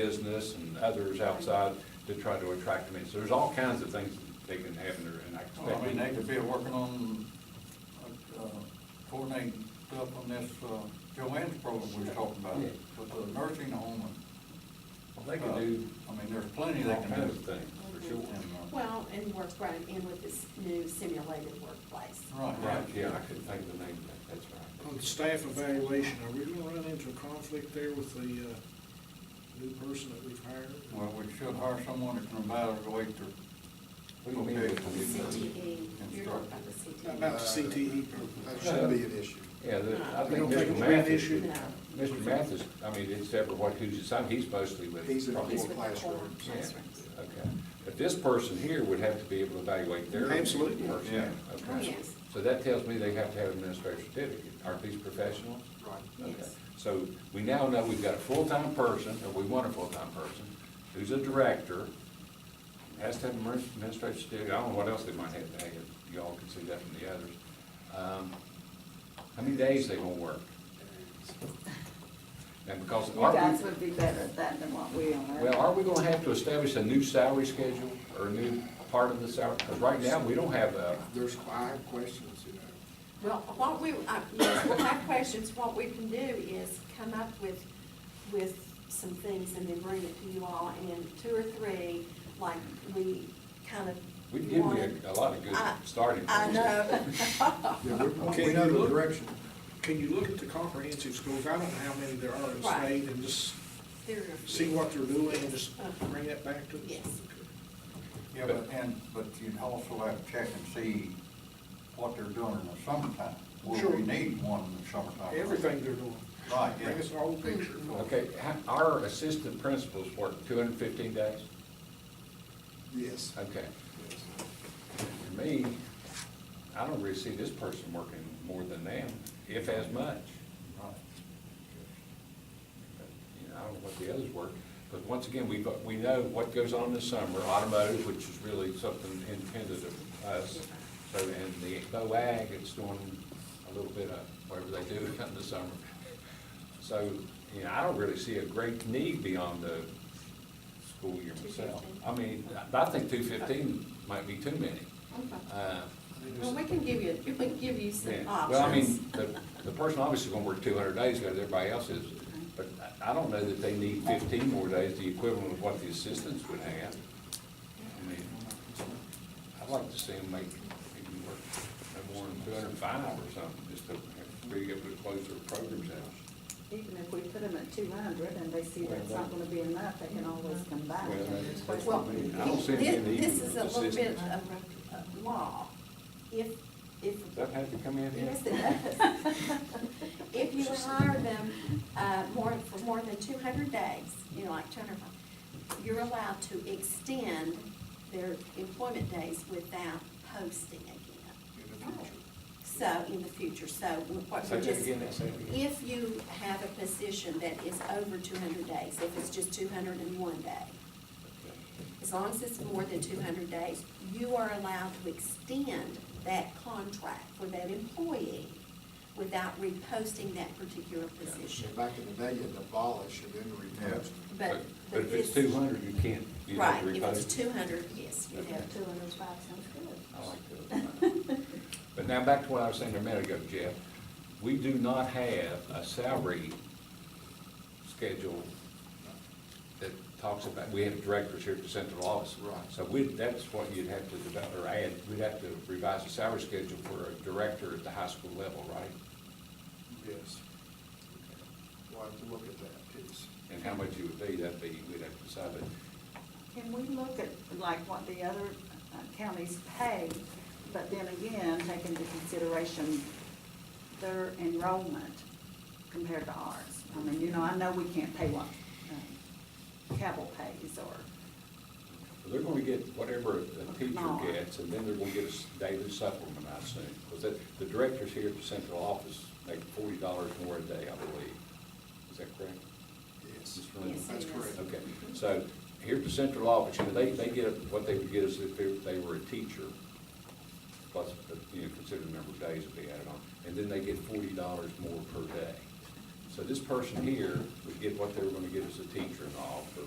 business and others outside to try to attract them in. So there's all kinds of things they can have in there, and I Well, expect. I mean, they could be working on, uh, coordinating stuff on this, uh, Joanne's program we were talking about, Yeah. with the nursing home. and, Well, They uh, can do I mean, there's plenty they all can do. kinds of things, for sure. And, uh, Well, and work right in with this new simulated workplace. Right, Right, yeah, I couldn't think of the name of that, that's right. On the staff evaluation, are we gonna run into a conflict there with the, uh, new person that we've hired? Well, we should hire someone that can evaluate their. What do you mean? vocational E. CTE, E, you're talking instruction. about the E. CTE. About the E CTE. That shouldn't be an issue. Yeah, there- I We think don't think Mr. it's been an Mathis, issue? No. Mr. Mathis, I mean, it's ever what, who's assigned, he's mostly with. He's in the He's whole with the core classroom. Yeah, classrooms. Okay, but this person here would have to be able to evaluate their. Absolutely. person. Yeah. Oh, Okay. yes. So that tells me they have to have an administrative certificate. Aren't these professionals? Right. Okay. Yes. So we now know we've got a full-time person, or we want a full-time person, who's a director, has to have an administrative certificate, I don't know what else they might have to have, y'all can see that from the others. Um, How many days they gonna work? And because. You guys would be better at that than what we are. Well, are we gonna have to establish a new salary schedule or a new part of the salary? Because right now, we don't have a, There's, I have questions, you know. Well, what we, uh, yes, well, my questions, what we can do is come up with, with some things and then bring it to you all in two or three, like we kind of. we give you a- a lot of good I- starting. I points. know. Yeah, we- Okay, we know you the look- direction. Can you look at the comprehensive schools, I don't know how many there are in the Right. state, and just There are a see few. what they're doing, and just Uh-huh. bring that back to us? Yes. Yeah, but, and, but you'd also have to check and see what they're doing in the summertime. Will Sure. we need one in the summertime? Everything they're doing. Right, yeah. Mm-hmm. Bring us the whole picture. Okay, ha- our assistant principals work two hundred and fifteen days? Yes. Okay. Yes. For me, I don't really see this person working more than them, if as much. Right. You know, I don't know what the others work, but once again, we, but we know what goes on this summer, automotive, which is really something intended of us. So, and the Bo Ag, it's doing a little bit of whatever they do in the summer. So, you know, I don't really see a great need beyond the school year myself. I mean, I I think two fifteen might be too many. Okay. Uh, Well, we can give you, we can give you some yeah. options. Well, I mean, the, the person obviously gonna work two hundred days, because everybody else is, but I I don't know that they need fifteen more days, the equivalent of what the assistants would have. I mean, I'd like to see them make, maybe work no more than two hundred and five or something, just to have- be able to close their programs out. Even if we put them at two hundred and they see that's not gonna be enough, they can always come back. Well, that's- that's Well, what I mean. I don't see any need this, this for is a this little bit system. of of law. If, if, Does that have to come in here? yes, it does. If you hire them, uh, more, for more than two hundred days, you know, like two hundred, you're allowed to extend their employment days without posting again. In the future. So, in the future, so what Say we're that just. again, say that again. If you have a position that is over two hundred days, if it's just two hundred and one day, as long as it's more than two hundred days, you are allowed to extend that contract for that employee without reposting that particular position. Back in the day, you had to abolish and then repost. But, But but if it's this. two hundred, you can't, you have Right, to if it's repost. two hundred, yes, you Two have to. hundred five sounds good. I like that. But now back to what I was saying a minute ago, Jeff. We do not have a salary schedule that talks about, we have directors here at the central office. Right. So we, that's what you'd have to develop, or add, we'd have to revise the salary schedule for a director at the high school level, right? Yes. We'll have to look at that piece. And how much you would be, that'd be, we'd have to decide, but Can we look at like what the other uh, counties pay, but then again, take into consideration their enrollment compared to ours? I mean, you know, I know we can't pay what um, Cabell pays or, they're gonna get whatever a teacher Not. gets, and then they're gonna get a s- daily supplement, I assume. Because the directors here at the central office make forty dollars more a day, I believe. Is that correct? Yes. Mr. Lindsay? Yes, it That's is. correct. Okay, so here at the central office, you know, they, they get what they would get is if they- they were a teacher, plus, uh, you know, consider the number of days that they added on, and then they get forty dollars more per day. So this person here would get what they were gonna get as a teacher and all, but